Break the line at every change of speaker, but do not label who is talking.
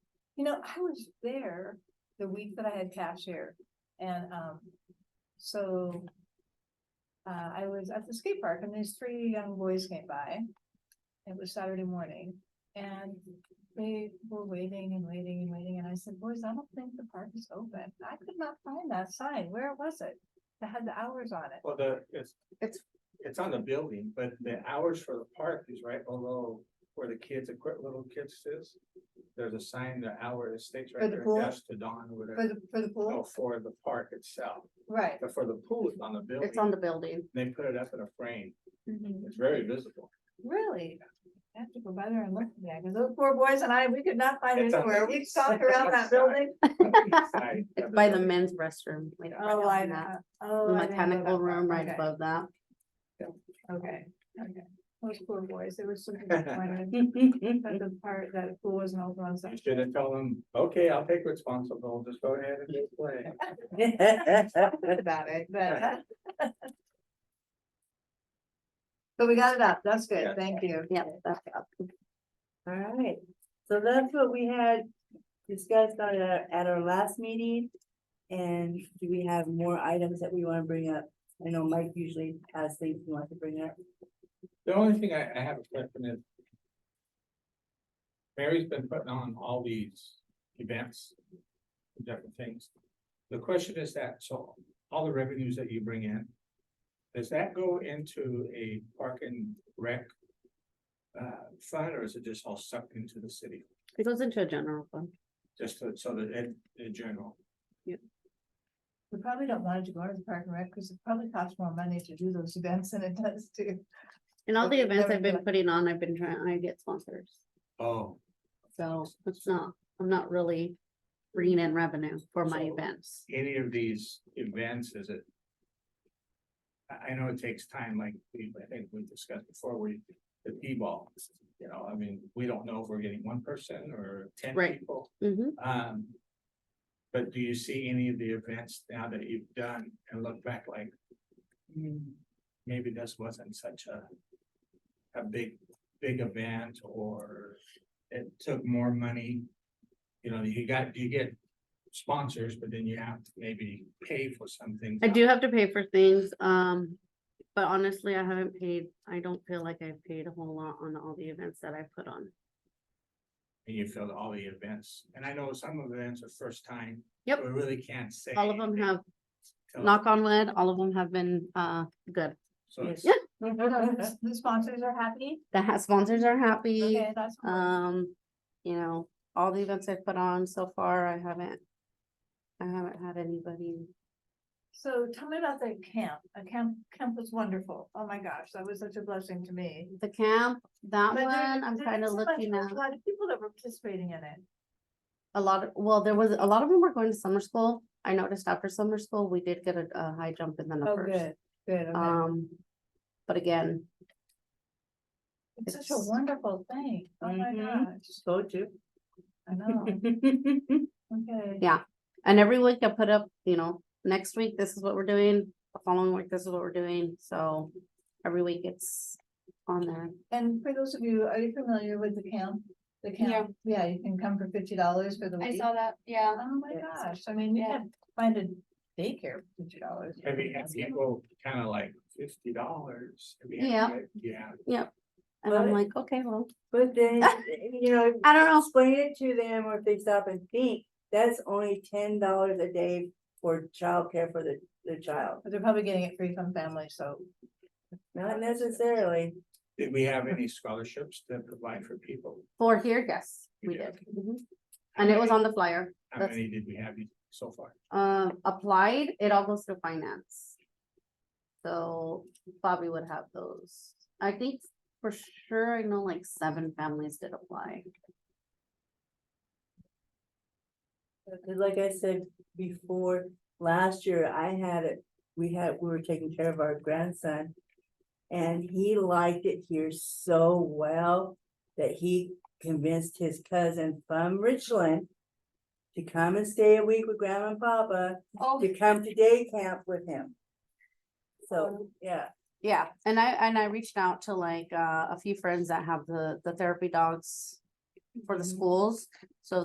You know, I was there the week that I had calf share and, um, so. Uh, I was at the skate park and these three young boys came by. It was Saturday morning and they were waiting and waiting and waiting. And I said, boys, I don't think the park is open. I could not find that sign. Where was it? That had the hours on it.
Well, the, it's,
It's-
it's, it's on the building, but the hours for the park is right below where the kids, equip little kids is. There's a sign, the hour is states
For
right
the
there,
pool?
dusk to dawn, or
For
whatever.
the, for the
No,
pool?
for the park itself,
Right.
but for the pool, it's on the building.
It's on the building.
They put it up in a frame.
Mm-hmm.
It's very visible.
Really? I have to go by there and look at that, because those poor boys and I, we could not find it
It's on
anywhere.
the
We stalked around that
outside.
building.
Inside of
It's by the
building.
men's restroom. like, right
Oh,
on
I,
that
oh. I didn't know
Mechanical
that.
room right
Okay,
above that.
Okay, okay. Those poor boys, they were so disappointed that the part, that the pool wasn't open on
You
Sunday.
should have told them, okay, I'll take responsible, just go ahead and just play.
Good about it, but. But we got it up. That's good.
Yeah.
Thank you.
Yep, that's up.
All right, so that's what we had discussed on our, at our last meeting. And do we have more items that we wanna bring up? I know Mike usually has things he wants to bring up.
The only thing I, I have a question is. Mary's been putting on all these events, different things. The question is that, so all the revenues that you bring in. Does that go into a park and rec? Uh, fund, or is it just all sucked into the city,
It goes into a general fund.
just to- so that in, in general?
We probably don't want it to go to the park and rec because it probably costs more money to do those events than it does to.
And all the
Okay,
events
never
I've been
mind.
putting on, I've been trying, I get sponsors.
Oh,
So it's not, I'm not really bringing in revenue for my
So-
events.
any of these events, is it? I, I know it takes time, like we, I think we discussed before, we, the P-ball, you know, I mean, we don't know if we're getting one person or ten
Right.
people.
hmm
Um. But do you see any of the events now that you've done and look back like? "Hmm, Maybe this wasn't such a. A big, big event or it took more money. You know, you got, you get sponsors, but then you have to maybe pay for something.
I do have to pay for things, um, but honestly, I haven't paid, I don't feel like I've paid a whole lot on all the events that I put on.
And you fill all the events. And I know some of the events are first time.
Yep.
We really can't say.
All of them have,
till-
knock on wood, all of them have been, uh, good.
So it's,
yeah.
The sponsors are happy.
The ha- sponsors are happy.
Okay, that's. cool.
Um, you know, all the events I've put on so far, I haven't. I haven't had anybody,
So tell me about the camp. A camp, camp was wonderful. Oh my gosh, that was such a blessing to me.
the camp, that
But there-
one, I'm
there
kind
was
of
a bunch-
looking
there was
at.
A lot of people that were participating in it.
A lot of, well, there was, a lot of them were going to summer school. I noticed after summer school, we did get a, a high jump in the
Oh,
numbers.
good, good. okay.
Um, but again,
It's such a
it's- Mm-hmm.
wonderful thing. Oh my
Mhm.
gosh,
Go to.
I know. Okay.
Yeah. and every week I put up, you know, next week, this is what we're doing, the following week, this is what we're doing, so. Every week it's on there.
And for those of you, are you familiar with the camp? The camp, yeah, you can come for fifty dollars for the week.
that, yeah.
Oh my
Yes.
gosh, I mean, you
Yeah.
can find a daycare for fifty dollars.
have you had people kind of like fifty dollars?
Yeah.
Yeah.
And I'm
But-
like, okay, well,
But then, you know,
I don't know,
explain it to them or if they stop and think, that's only ten dollars a day for childcare for the, the child.
But they're probably getting it free from families, so.
Not necessarily.
Did we have any scholarships that provide for people?
For here, yes, we
Yeah.
did. Mhm. And it was on the flyer,
How
That's-
many did we have so far?
um, applied, it all goes through finance. So Bobby would have those. I think for sure, I know like seven families did apply.
Cause
Mm-hmm.
like I said before, last year I had it, we had, we were taking care of our grandson. And he liked it here so well that he convinced his cousin from Richland. To come and stay a week with grandma and papa,
Oh.
to come to day camp with him. So, yeah,
Yeah, and I, and I reached out to like, uh, a few friends that have the, the therapy dogs for the schools. So